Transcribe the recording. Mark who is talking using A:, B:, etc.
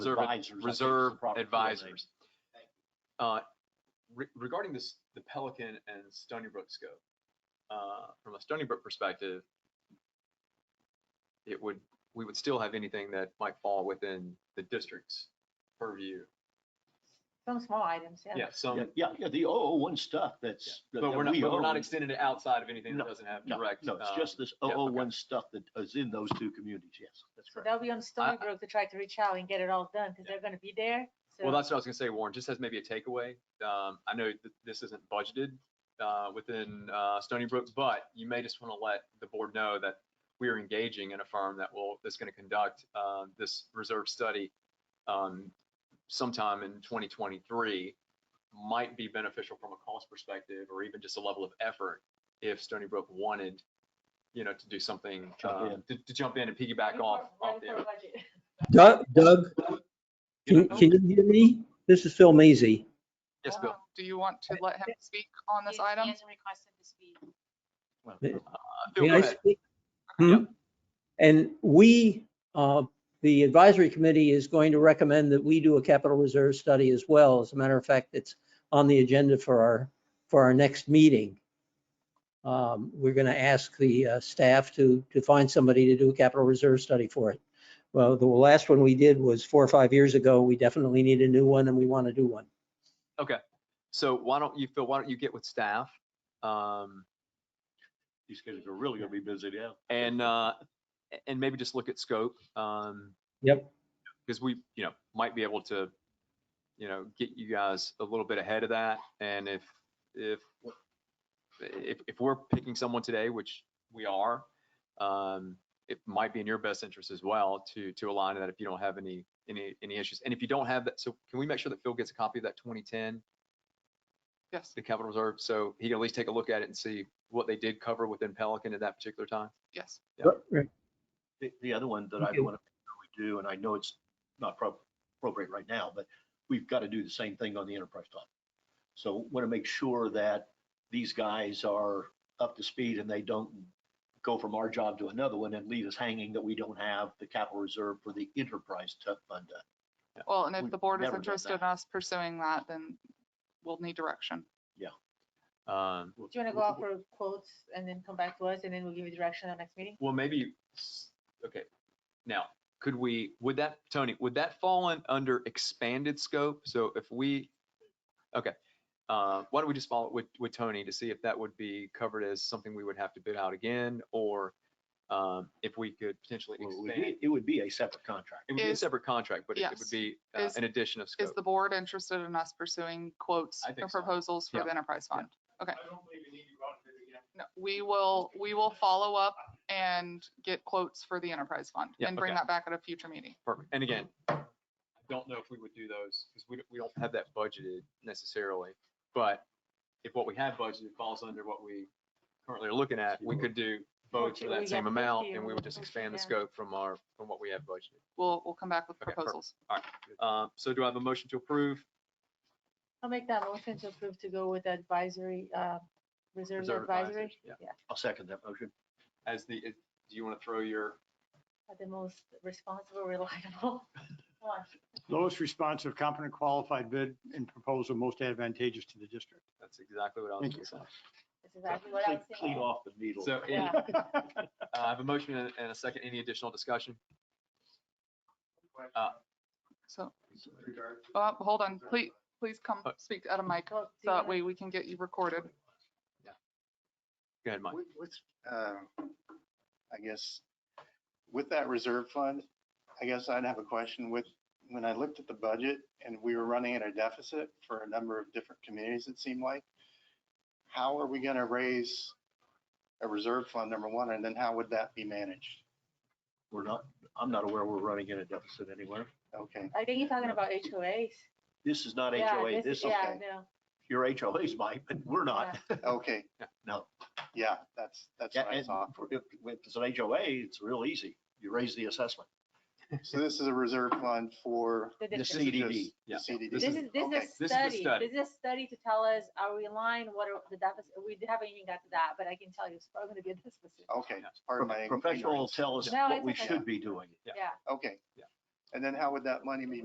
A: Reserve-
B: advisors. I think is the
A: reserve
B: proper word.
A: advisors. Uh, re- regarding this, the Pelican and Stony Brook scope, uh, from a Stony Brook perspective, it would, we would still have anything that might fall within the district's purview.
C: Some small items, yeah.
A: Yeah,
B: Yeah,
A: some,
B: Yeah, yeah, the 001 stuff
A: yeah.
B: that's. that-
A: but we're
B: that
A: not,
B: we
A: but we're not
B: own.
A: extending it outside of anything that
B: No,
A: doesn't have
B: No,
A: direct.
B: No, it's just
A: um,
B: this
A: yeah, okay.
B: 001 stuff that is in those two communities, yes, that's
C: So
B: correct.
C: that'll be on Stony Brook to try to reach out and get it all done, because they're gonna be there.
A: Well,
C: so-
A: that's what I was gonna say, Warren, just as maybe a takeaway, um, I know that this isn't budgeted, uh, within, uh, Stony Brook, but you may just wanna let the board know that we are engaging in a firm that will, that's gonna conduct, uh, this reserve study, um, sometime in twenty twenty-three. Might be beneficial from a cost perspective, or even just a level of effort, if Stony Brook wanted, you know, to do something,
B: Jump
A: uh,
B: in.
A: to, to jump in and piggyback
C: Before-
A: off,
C: right
A: off the.
C: before budget.
D: Doug, Doug, can,
E: know-
D: can you hear me? This is Phil Maisy.
A: Yes, Bill.
E: Um, Do you want to let him speak on this
F: Yes,
E: item?
F: He hasn't requested to speak.
B: Well,
D: Yeah.
A: Uh, Bill,
D: May
A: go
D: I
A: ahead.
D: speak? Hmm? And we, uh, the advisory committee is going to recommend that we do a capital reserve study as well. As a matter of fact, it's on the agenda for our, for our next meeting. Um, We're going to ask the uh, staff to, to find somebody to do a capital reserve study for it. Well, the last one we did was four or five years ago. We definitely need a new one and we want to do one.
A: So why don't you, Phil, why don't you get with staff? Um,
B: These guys are really gonna be busy now.
A: and, uh, a- and maybe just look at scope. Um,
D: Yep.
A: because we, you know, might be able to, you know, get you guys a little bit ahead of that. And if, if, if, if we're picking someone today, which we are, um, it might be in your best interest as well to, to align that if you don't have any, any, any issues. And if you don't have that, so can we make sure that Phil gets a copy of that 2010
E: Yes,
A: the capital reserve, so he can at least take a look at it and see what they did cover within Pelican at that particular time.
E: yes.
D: Right.
B: The, the other one that I
D: Okay.
B: want to do, and I know it's not pro- appropriate right now, but we've got to do the same thing on the enterprise fund. So want to make sure that these guys are up to speed and they don't go from our job to another one and leave us hanging that we don't have the capital reserve for the enterprise tu- fund. done.
E: Well, and
B: We've
E: if the board is
B: never done
E: interested in
B: that.
E: us pursuing that, then we'll need direction.
A: Um,
C: Do you wanna go out for quotes and then come back to us, and then we'll give you direction on next meeting?
A: well, maybe, s- okay, now, could we, would that, Tony, would that fall in under expanded scope? So if we, okay, uh, why don't we just follow it with, with Tony to see if that would be covered as something we would have to bid out again, or, um, if we could potentially
B: Well, It would
A: expand.
B: be- it would be a separate contract.
A: It would be a
E: Is-
A: separate contract, but it it would
E: yes.
A: be uh,
E: Is-
A: an addition of
E: Is
A: scope.
E: the board interested in us pursuing quotes
A: I
E: or
A: think so.
E: proposals for
A: Yeah.
E: the enterprise
A: Yeah.
E: fund? Okay. No, We will, we will follow up and get quotes for the enterprise fund
A: Yeah,
E: and bring
A: okay.
E: that back at a future meeting.
A: Perfect. And again, I don't know if we would do those because we, don't- we don't have that budgeted necessarily. But if what we have budgeted falls under what we currently are looking at, we could do both for
C: Fortunately, we
A: that same
C: got
A: amount
C: plenty
A: and
C: of
A: we would just
C: room,
A: expand the
C: yeah.
A: scope from our, from what we have budgeted.
E: We'll, we'll come back with
A: Okay, perfect.
E: proposals.
A: Uh, so do I have a motion to approve?
C: I'll make that motion to approve to go with advisory, uh, reserve
A: Reserve
C: advisory.
A: advisors, yeah.
C: Yeah,
B: I'll second that motion.
A: As the, is- do you want to throw your,
C: are the most responsible, reliable one.
G: lowest responsive, competent, qualified bid and proposal most advantageous to the district.
A: that's exactly what I was
G: Thank
A: going to say.
C: That's exactly what I was
B: Clean- Clean
C: thinking.
B: off the needle.
A: So any-
C: Yeah.
A: uh, I have a motion and and a second. Any additional discussion?
E: So, uh, hold on, please, please come
A: Uh,
E: speak at a mic.
C: Well, do you
E: So that
C: wanna-
E: way we can get you recorded.
A: Go ahead, Mike.
H: With, with, um, I guess, with that reserve fund, I guess I'd have a question with, when I looked at the budget and we were running at a deficit for a number of different communities, it seemed like, how are we gonna raise a reserve fund, number one, and then how would that be managed?
B: We're not, I'm not aware we're running in a deficit anywhere.
H: Okay,
C: I think you're talking about HOAs.
B: This is not
C: Yeah,
B: HOA. This is
C: Yeah,
H: okay.
C: no,
B: your HOAs, Mike, but we're not.
H: okay,
B: No.
H: yeah, that's, that's
B: Yeah,
H: what I
B: and
H: saw.
B: for- if if it's an HOA, it's real easy. You raise the assessment.
H: So this is a reserve fund for
C: the
B: The
C: difference.
H: is
B: CDD.
A: Yeah.
H: the CDD.
C: This is, this
H: Okay.
C: is a
A: This is a
C: study,
A: study.
C: this is a study to tell us, are we aligned, what are the deficit, we haven't even got to that, but I can tell you, it's probably gonna be a deficit.
H: Okay, pardon my.
B: Professional will
H: ignorance.
B: tell us
C: No,
B: what
C: it's
B: we
C: okay.
B: should be doing.
C: Yeah.
H: Okay.
A: Yeah.
H: And then how would that money be